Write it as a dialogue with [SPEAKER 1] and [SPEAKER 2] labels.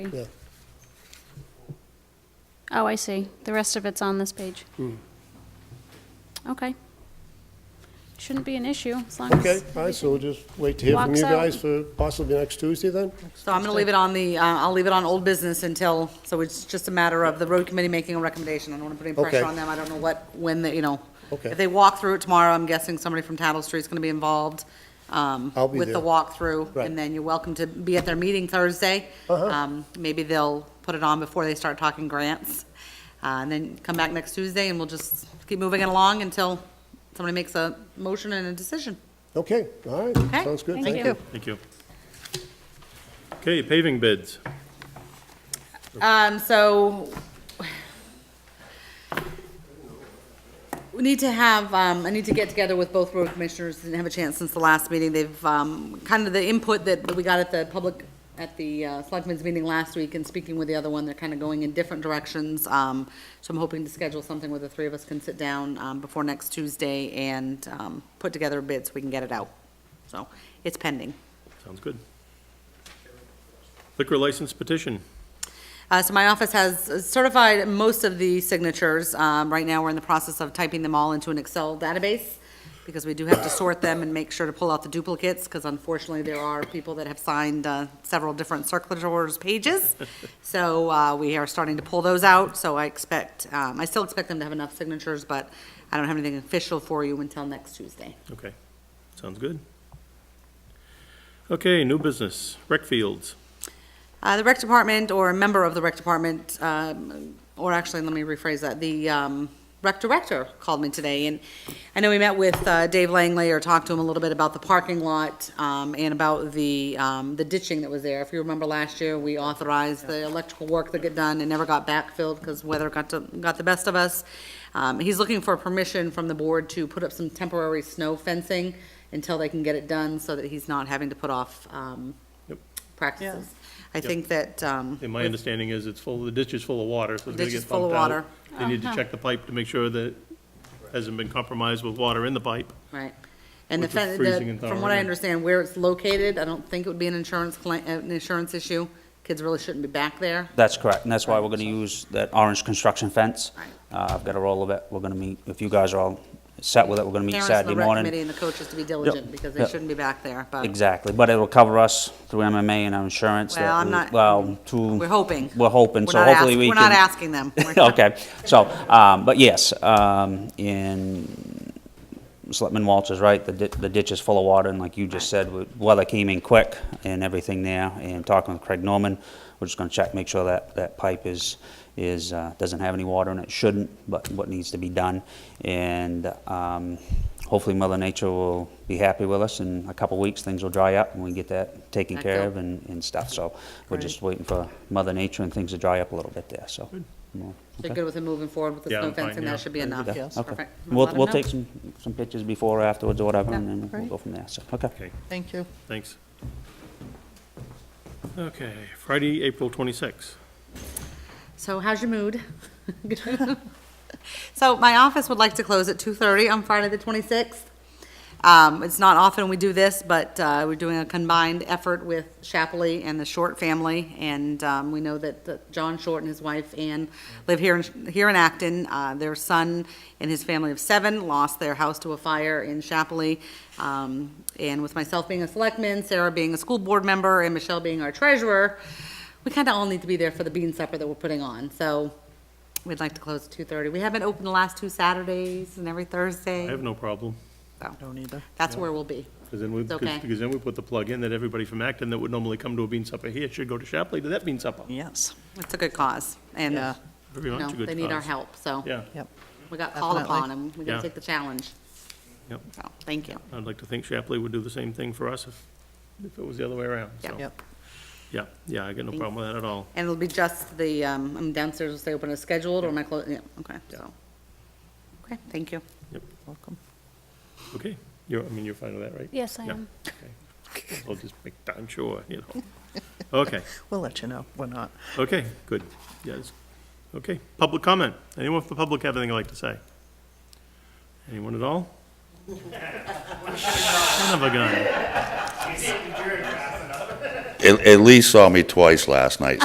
[SPEAKER 1] Yeah.
[SPEAKER 2] Oh, I see. The rest of it's on this page.
[SPEAKER 1] Hmm.
[SPEAKER 2] Okay. Shouldn't be an issue, as long as...
[SPEAKER 1] Okay, all right, so we'll just wait to hear from
[SPEAKER 2] Walks
[SPEAKER 1] you
[SPEAKER 2] out.
[SPEAKER 1] guys for possibly next Tuesday then?
[SPEAKER 3] So I'm going to leave it on the, uh, I'll leave it on old business until, so it's just a matter of the road committee making a recommendation. I don't want to put any
[SPEAKER 1] Okay.
[SPEAKER 3] pressure on them. I don't know what, when, they you know.
[SPEAKER 1] Okay.
[SPEAKER 3] If they walk through it tomorrow, I'm guessing somebody from Tattle Street's going to be involved um,
[SPEAKER 1] I'll be
[SPEAKER 3] with the
[SPEAKER 1] there.
[SPEAKER 3] walkthrough.
[SPEAKER 1] Right.
[SPEAKER 3] And then you're welcome to be at their meeting Thursday.
[SPEAKER 1] Uh-huh.
[SPEAKER 3] Um, Maybe they'll put it on before they start talking grants. Uh, And then come back next Tuesday and we'll just keep moving it along until somebody makes a motion and a decision.
[SPEAKER 1] Okay, all right,
[SPEAKER 3] Okay,
[SPEAKER 1] sounds good,
[SPEAKER 2] thank
[SPEAKER 1] thank
[SPEAKER 2] you.
[SPEAKER 1] you.
[SPEAKER 4] Thank you. Okay, paving bids.
[SPEAKER 3] Um, so we need to have, um, I need to get together with both road commissioners, didn't have a chance since the last meeting. They've, um, kind of the input that that we got at the public, at the uh, selectmen's meeting last week and speaking with the other one, they're kind of going in different directions. Um, so I'm hoping to schedule something where the three of us can sit down, um, before next Tuesday and, um, put together a bid so we can get it out. So it's pending.
[SPEAKER 4] Sounds good. Liquor license petition.
[SPEAKER 3] Uh, so my office has certified most of the signatures. Um, right now, we're in the process of typing them all into an Excel database because we do have to sort them and make sure to pull out the duplicates because unfortunately, there are people that have signed, uh, several different circulators pages. So, uh, we are starting to pull those out, so I expect, um, I still expect them to have enough signatures, but I don't have anything official for you until next Tuesday.
[SPEAKER 4] Okay, sounds good. Okay, new business, rec fields.
[SPEAKER 3] Uh, The rec department, or a member of the rec department, um, or actually, let me rephrase that, the um, rec director called me today, and I know we met with uh, Dave Langley, or talked to him a little bit about the parking lot um, and about the, um, the ditching that was there. If you remember last year, we authorized the electrical work that got done and never got backfilled because weather got to, got the best of us. Um, He's looking for permission from the board to put up some temporary snow fencing until they can get it done, so that he's not having to put off um,
[SPEAKER 4] Yep.
[SPEAKER 3] practices. I think that, um,
[SPEAKER 4] And my understanding is it's full, the ditch is full of water, so it's gonna
[SPEAKER 3] Ditch is
[SPEAKER 4] get
[SPEAKER 3] full of
[SPEAKER 4] pumped out.
[SPEAKER 3] water. Uh-huh.
[SPEAKER 4] They need to check the pipe to make sure that it hasn't been compromised with water in the pipe.
[SPEAKER 3] right. And the,
[SPEAKER 4] Which is
[SPEAKER 3] fen-
[SPEAKER 4] freezing
[SPEAKER 3] the-
[SPEAKER 4] and
[SPEAKER 3] from what I
[SPEAKER 4] thawing.
[SPEAKER 3] understand, where it's located, I don't think it would be an insurance claim, uh, an insurance issue. Kids really shouldn't be back there.
[SPEAKER 5] That's correct, and that's why we're gonna use that orange construction fence.
[SPEAKER 3] Right.
[SPEAKER 5] Uh, I've got a roll of it, we're gonna meet, if you guys are all set with it, we're gonna meet
[SPEAKER 3] Parents and
[SPEAKER 5] Saturday
[SPEAKER 3] the rec
[SPEAKER 5] morning.
[SPEAKER 3] committee and the coaches to be diligent because they
[SPEAKER 5] yep.
[SPEAKER 3] shouldn't be back there, but
[SPEAKER 5] Exactly, but it'll cover us through MMA and our insurance. that
[SPEAKER 3] Well, I'm
[SPEAKER 5] we-
[SPEAKER 3] not-
[SPEAKER 5] Well, through.
[SPEAKER 3] we're hoping.
[SPEAKER 5] We're hoping,
[SPEAKER 3] We're
[SPEAKER 5] so
[SPEAKER 3] not
[SPEAKER 5] hopefully
[SPEAKER 3] ask-
[SPEAKER 5] we
[SPEAKER 3] we're
[SPEAKER 5] can.
[SPEAKER 3] not asking them. We're-
[SPEAKER 5] Okay, so, um, but yes, um, in, Selectman Walsh is right, the di- the ditch is full of water, and like you just said, we- weather came in quick and everything there, and talking with Craig Norman, we're just gonna check, make sure that, that pipe is, is, uh, doesn't have any water in it, shouldn't, but what needs to be done. And um, hopefully Mother Nature will be happy with us, in a couple weeks, things will dry up, and we can get that taken
[SPEAKER 3] That
[SPEAKER 5] care
[SPEAKER 3] go.
[SPEAKER 5] of and, and stuff, so we're
[SPEAKER 3] Great.
[SPEAKER 5] just waiting for Mother Nature and things to dry up a little bit there, so. well,
[SPEAKER 3] they're good with him moving forward with the
[SPEAKER 4] Yeah,
[SPEAKER 3] snow
[SPEAKER 4] I'm fine,
[SPEAKER 3] fencing.
[SPEAKER 4] yeah.
[SPEAKER 3] That should be enough.
[SPEAKER 5] yeah, okay.
[SPEAKER 3] Perfect. Let
[SPEAKER 5] We'll,
[SPEAKER 3] them
[SPEAKER 5] we'll
[SPEAKER 3] know.
[SPEAKER 5] take some, some pictures before or afterwards or whatever, and then we'll
[SPEAKER 6] great.
[SPEAKER 5] go from there, so, okay.
[SPEAKER 4] Okay,
[SPEAKER 6] Thank you.
[SPEAKER 4] thanks. Okay, Friday, April twenty-sixth.
[SPEAKER 3] So how's your mood? So my office would like to close at two-thirty on Friday the twenty-sixth. Um, it's not often we do this, but, uh, we're doing a combined effort with Shapley and the Short family. And, um, we know that uh, John Short and his wife Ann live here in, here in Acton. Uh, their son and his family of seven lost their house to a fire in Shapley. Um, and with myself being a selectman, Sarah being a school board member, and Michelle being our treasurer, we kind of all need to be there for the bean supper that we're putting on. So we'd like to close at two thirty. We haven't opened the last two Saturdays and every Thursday.
[SPEAKER 4] I have no problem,
[SPEAKER 6] Don't either.
[SPEAKER 3] That's where we'll be.
[SPEAKER 4] because then we,
[SPEAKER 3] It's
[SPEAKER 4] 'cause-
[SPEAKER 3] okay.
[SPEAKER 4] because then we put the plug in that everybody from Acton that would normally come to a bean supper here should go to Shapley to that bean supper.
[SPEAKER 6] Yes.
[SPEAKER 3] It's a good cause, and,
[SPEAKER 6] Yeah.
[SPEAKER 3] you
[SPEAKER 4] Very much
[SPEAKER 3] know,
[SPEAKER 4] a good
[SPEAKER 3] they need our
[SPEAKER 4] cause.
[SPEAKER 3] help, so
[SPEAKER 4] Yeah,
[SPEAKER 6] Yep.
[SPEAKER 3] we got called
[SPEAKER 6] Definitely.
[SPEAKER 3] upon, and we're
[SPEAKER 4] Yeah.
[SPEAKER 3] gonna take the challenge.
[SPEAKER 4] Yep.
[SPEAKER 3] So, thank you.
[SPEAKER 4] I'd like to think Shapley would do the same thing for us if, if it was the other way around,
[SPEAKER 3] Yeah.
[SPEAKER 4] so.
[SPEAKER 6] Yep.
[SPEAKER 4] Yeah, yeah, I got no problem with that at all.
[SPEAKER 3] And it'll be just the, um, I'm downstairs, will stay open as scheduled, or am I closing? Yeah, okay, so. Okay, thank you.
[SPEAKER 6] Welcome.
[SPEAKER 4] Okay, you're, I mean, you're fine with that, right?
[SPEAKER 2] Yes, I
[SPEAKER 4] Yeah.
[SPEAKER 2] am.
[SPEAKER 4] Okay. I'll just make darn sure, you know. Okay,
[SPEAKER 6] We'll let you know. We're not.
[SPEAKER 4] okay, good, yes. Okay, public comment. Anyone from the public have anything they'd like to say? Anyone at all? Son of a gun.
[SPEAKER 7] At, at least saw me twice last night,